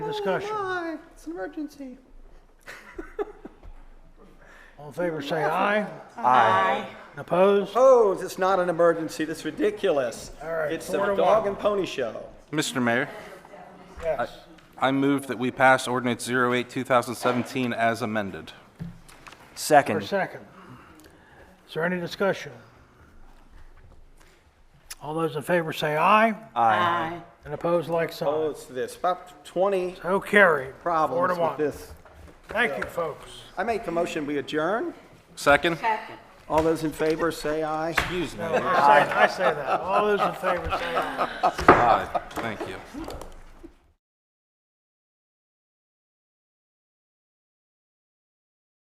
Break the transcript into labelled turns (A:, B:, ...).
A: discussion?
B: Hi, it's an emergency.
A: All in favor, say aye.
C: Aye.
A: Opposed?
B: Oh, it's not an emergency. That's ridiculous.
A: All right,
B: It's
A: four to
B: a dog
A: one.
B: and pony show.
C: Mr. Mayor,
A: Yes.
C: I move that we pass ordinance 08, 2017 as amended.
A: For a
D: Second.
A: second. Is there any discussion? All those in favor, say aye.
D: Aye.
A: And opposed, like sign.
B: Oh, it's this. About 20
A: So carried. Four to
B: problems with
A: one.
B: this.
A: Thank you, folks.
B: I make the motion, we adjourn.
C: Second?
B: All those in favor, say aye.
C: Excuse me.
A: I say I say that. All those in favor, say aye.
C: Aye. Thank you.